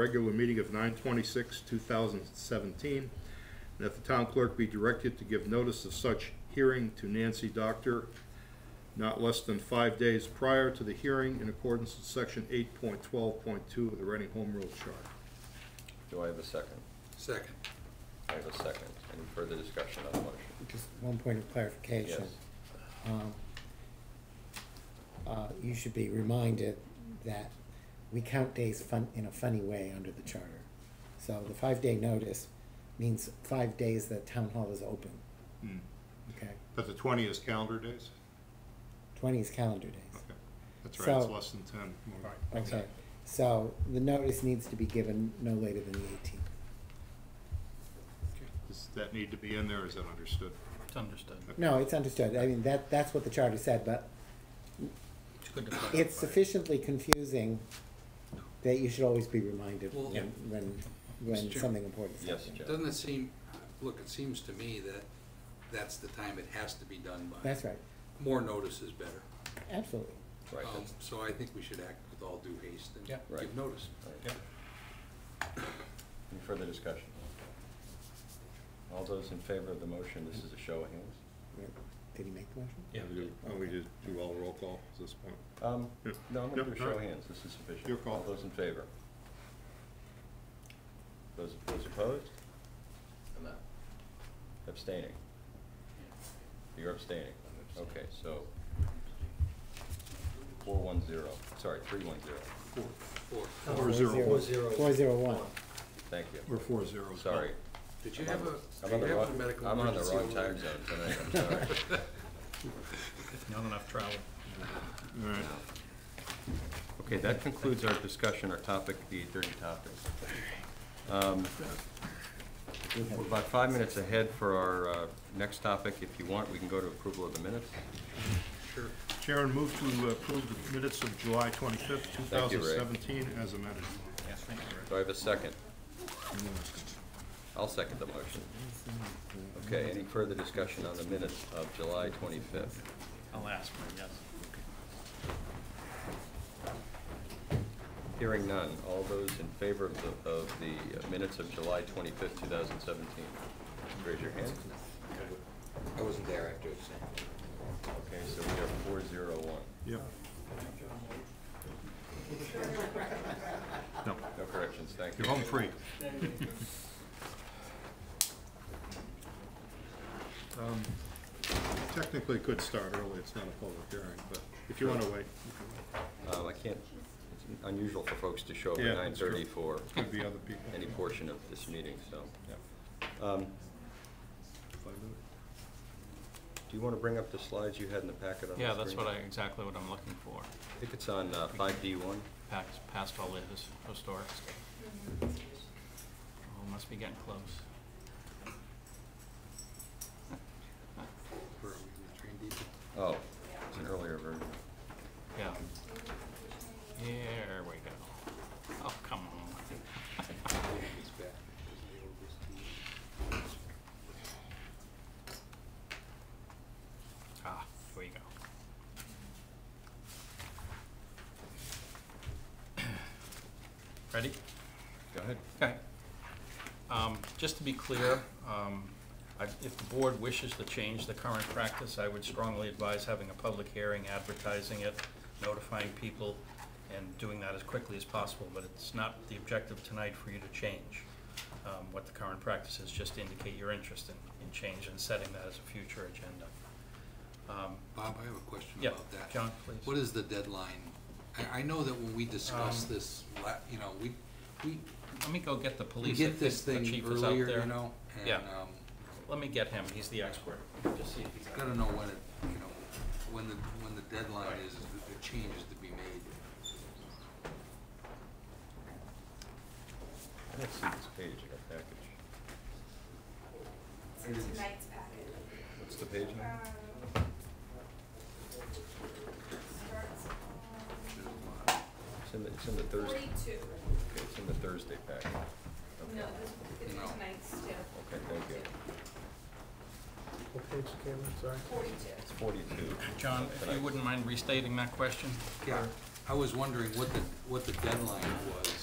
regular meeting of nine twenty-six, two thousand seventeen, and that the town clerk be directed to give notice of such hearing to Nancy Doctor not less than five days prior to the hearing in accordance with section eight point twelve point two of the Reading Home Rule Chart. Do I have a second? Second. I have a second. Any further discussion on the motion? Just one point of clarification. Yes. Um, uh, You should be reminded that we count days fun, in a funny way under the charter. So the five-day notice means five days that town hall is open, okay? Hmm. But the twenty is calendar days? Twenty is calendar days. That's right, it's So- less than ten. Okay, so the notice needs to be given no later than the eighteenth. Does that need to be in there, is that understood? It's understood. No, it's understood. I mean, that, that's what the charter said, but It's good to clarify. it's sufficiently confusing that you should always be reminded Well- when, when, when Mr. Chair. something important is Yes, happening. Jeff? Doesn't it seem, look, it seems to me that that's the time it has to be done by. That's right, More notice is better. absolutely. Right, Um, that's, So I think we should act with all due haste and Yeah. Right. give notice. right. Yep. Any further discussion? All those in favor of the motion, this is a show of hands. Wait, Did he make the motion? Yeah. Oh, we just do all roll call at this point? Um, Yeah. no, I'm Yeah, gonna do a show all of right. hands, this is sufficient. Your call. All those in favor? Those, those opposed? I'm not. Abstaining? You're abstaining? Okay, so four one zero, sorry, three one zero. Or, Four zero. Four zero. Four zero one. Thank you. Or four zero. Sorry. did you have a, I'm did on the you have a wrong- medical emergency? I'm on the wrong time alert? zone tonight, I'm sorry. Not enough travel. All right. Okay, that concludes our discussion, our topic, the dirty topics. Um, We're about five minutes ahead for our uh, next topic. If you want, we can go to approval of the minutes. Sure. Sharon, move to uh, approve the minutes of July twenty-fifth, two Thank you, thousand Ray. seventeen, as amended. Yes, thank you. Do I have a second? I'll second the motion. Okay, any further discussion on the minutes of July 25th? I'll ask for it, yes. Hearing none. All those in favor of the, of the minutes of July 25th, 2017? Raise your hand. I wasn't there after the same. Okay, so we are four zero one. Yep. No, No corrections, thank you. you're home free. Um, Technically could start early, it's not a public hearing, but if you wanna wait, you can wait. Um, I can't, it's unusual for folks to show up Yeah, at nine that's true. thirty for could be other people. any portion of this meeting, so. Yeah, Um, five minutes. do you wanna bring up the slides you had in the packet on the screen? Yeah, that's what I, exactly what I'm looking for. I think it's on, uh, five D one. Past, past all the his- historic stuff. Oh, must be getting close. Where are we gonna train people? Oh, it's an earlier version. Yeah. There we go. Oh, come on. It's back. Ah, there you go. Ready? Go ahead. Okay. Um, Just to be clear, um, I- if the board wishes to change the current practice, I would strongly advise having a public hearing, advertising it, notifying people, and doing that as quickly as possible, but it's not the objective tonight for you to change um, what the current practice is, just to indicate your interest in in change and setting that as a future agenda. Um, Bob, I have a question Yeah, about that. John, please. What is the deadline? I, I know that when we discussed Um, this, la- you know, we, we Let me go get the we police. I get think this the thing chief is out earlier, there. you know? Yeah. And, um, Let me get him, he's the expert. Just see if he's out gotta know when it, you know, when the, when the deadline is, that the change is to be made. I don't see this page in our package. It's in tonight's packet. What's the page Um, number? starts There's on a lot. It's in the, it's in the Thursday, okay, Um, forty-two. it's in the Thursday packet. Okay. No, this, it's No. tonight's too. Okay, thank you. Forty-two. It's forty-two. John, if you Tonight. wouldn't mind restating that question? Yeah, I was wondering what the, what the deadline was